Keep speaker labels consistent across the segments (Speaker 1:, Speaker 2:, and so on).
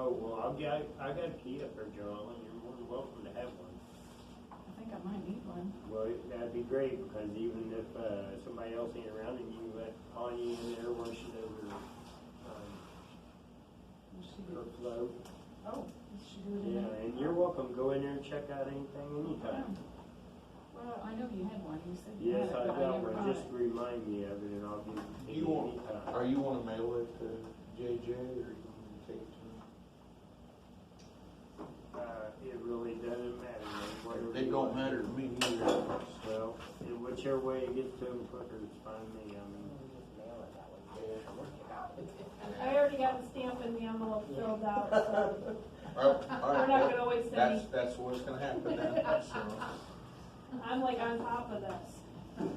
Speaker 1: I'll, yeah, I I Oh, got a key up there, Joel, and you're more than welcome to have one.
Speaker 2: I think I might need one.
Speaker 1: Well, that'd be great, because even if, uh, somebody else ain't around and you let Tanya in there wash it over, um,
Speaker 2: Does she
Speaker 1: her
Speaker 2: do-
Speaker 1: flow.
Speaker 2: Oh, does she do it in
Speaker 1: Yeah,
Speaker 2: there?
Speaker 1: and you're welcome, go in there and check out anything, anytime.
Speaker 2: Well, I know you had one, you said you had
Speaker 1: Yes,
Speaker 2: it,
Speaker 1: I
Speaker 2: but I
Speaker 1: got
Speaker 2: never
Speaker 1: one,
Speaker 2: brought it.
Speaker 1: just remind me of it and I'll give it to
Speaker 3: You
Speaker 1: you
Speaker 3: want-
Speaker 1: anytime.
Speaker 3: Are you wanna mail it to JJ or you wanna take it to
Speaker 1: Uh, it really doesn't matter, man, whatever.
Speaker 3: him? It
Speaker 1: you
Speaker 3: don't
Speaker 1: want.
Speaker 3: matter to me either.
Speaker 1: Well, in whichever way it gets to them quicker, it's fine with me, I mean.
Speaker 4: I already got the stamp in the envelope filled out, so
Speaker 3: Well, all
Speaker 4: we're
Speaker 3: right,
Speaker 4: not gonna waste
Speaker 3: That's,
Speaker 4: any,
Speaker 3: that's what's gonna happen now, so.
Speaker 4: I'm like on top of this.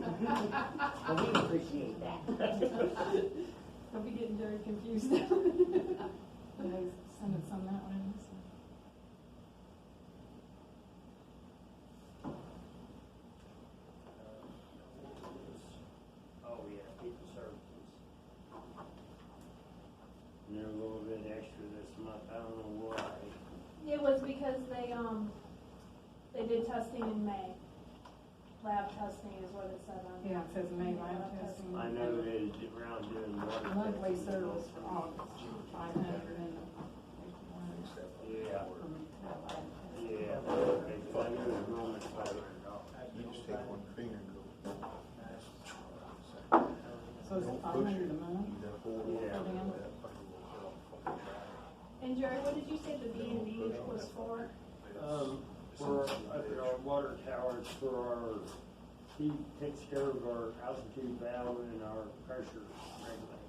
Speaker 5: Well, we appreciate that.
Speaker 1: Oh,
Speaker 4: I'll be getting very confused now.
Speaker 2: Did I send it some that one? So-
Speaker 1: Oh, yeah, people services. And They're a little bit extra this month, I don't know why.
Speaker 4: It was because they, um, they did testing in May. Lab testing is what it said on.
Speaker 2: Yeah, it says May lab testing.
Speaker 1: I know they was around doing one.
Speaker 2: Monthly service for August, five hundred and. fifty-one.
Speaker 1: Yeah, yeah, because I knew it was going to five hundred dollars.
Speaker 3: You just take one finger and go.
Speaker 2: So is it
Speaker 3: Don't
Speaker 2: five
Speaker 3: push it.
Speaker 2: hundred a month?
Speaker 3: You gotta hold on to
Speaker 1: Yeah.
Speaker 3: that fucking little girl.
Speaker 4: And Jerry, what did you say the B and B was for?
Speaker 1: Um, for, up at our water towers, for our, he takes care of our altitude valve and our pressure regulator.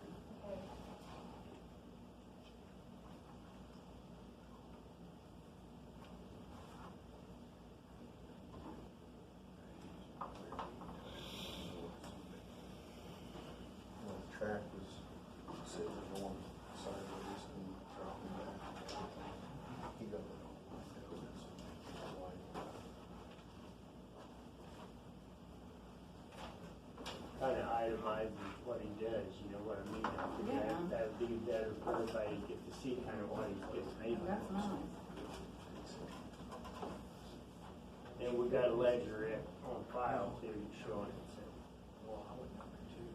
Speaker 3: Well, the Track was sitting going sideways and dropping back. and everything. He got it all lined up, and so he got it lined up.
Speaker 1: kind of itemizes what he does, you know what I mean? I think that-
Speaker 2: Yeah.
Speaker 1: That'd be better for everybody to get to see kind of what he's getting paid
Speaker 2: Oh, That's
Speaker 1: for.
Speaker 2: nice.
Speaker 1: And we got a ledger it on file too, showing it, so.
Speaker 3: Well, I would number two.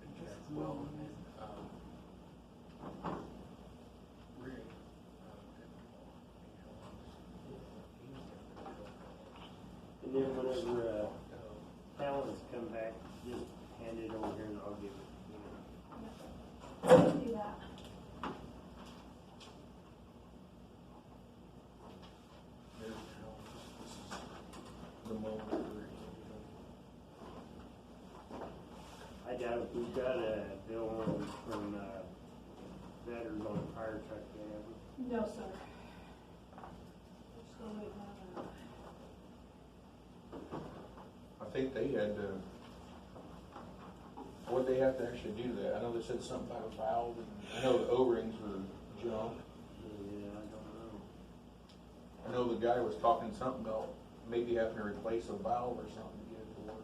Speaker 2: This is
Speaker 3: Well,
Speaker 2: well,
Speaker 3: and, um, Rick, uh,
Speaker 1: And
Speaker 3: did
Speaker 1: then whenever, uh, Fallon's come back, just hand it over here and I'll give it, you know.
Speaker 4: Do that.
Speaker 3: There's now, this is the moment where
Speaker 1: I
Speaker 3: you
Speaker 1: doubt if we've got a bill on from, uh, veterans on a fire truck yet, have we?
Speaker 4: No, sir. We're still waiting on that.
Speaker 3: I think they had to, what'd they have to actually do that? I know they said something about a valve, and I know the O-rings were junk.
Speaker 1: Yeah, I don't know.
Speaker 3: I know the guy was talking something about maybe having to replace a valve or something to get it to work.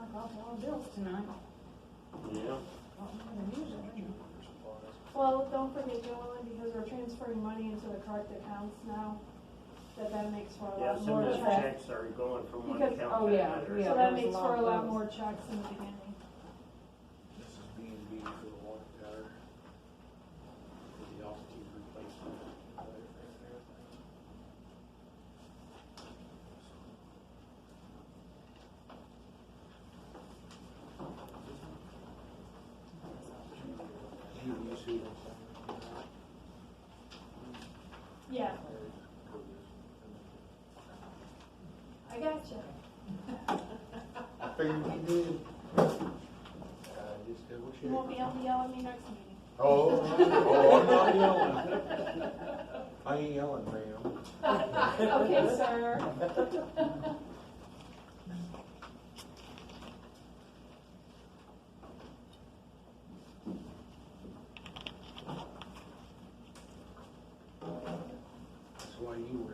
Speaker 2: I got a lot of bills tonight.
Speaker 1: Yeah,
Speaker 2: A lot more than usual, isn't it?
Speaker 4: Well, don't forget, Joellen, because we're transferring money into the correct accounts now, that that makes for a
Speaker 1: yeah,
Speaker 4: lot
Speaker 1: some
Speaker 4: more
Speaker 1: of those
Speaker 4: checks.
Speaker 1: checks are going from one
Speaker 4: Because-
Speaker 1: account to another.
Speaker 2: oh, yeah, yeah. there
Speaker 4: So
Speaker 2: was a
Speaker 4: that makes
Speaker 2: lot
Speaker 4: for a
Speaker 2: of
Speaker 4: lot
Speaker 2: those.
Speaker 4: more checks in the beginning.
Speaker 3: This is B and B for the water tower. For the altitude replacement. Do you see what I'm saying?
Speaker 4: Yeah, I gotcha.
Speaker 3: I figured you did. I just double
Speaker 4: You won't be
Speaker 3: checked.
Speaker 4: able to yell at me next meeting.
Speaker 3: Oh, oh, I'm not yelling. I ain't yelling, ma'am.
Speaker 4: Okay, sir.
Speaker 3: That's why you were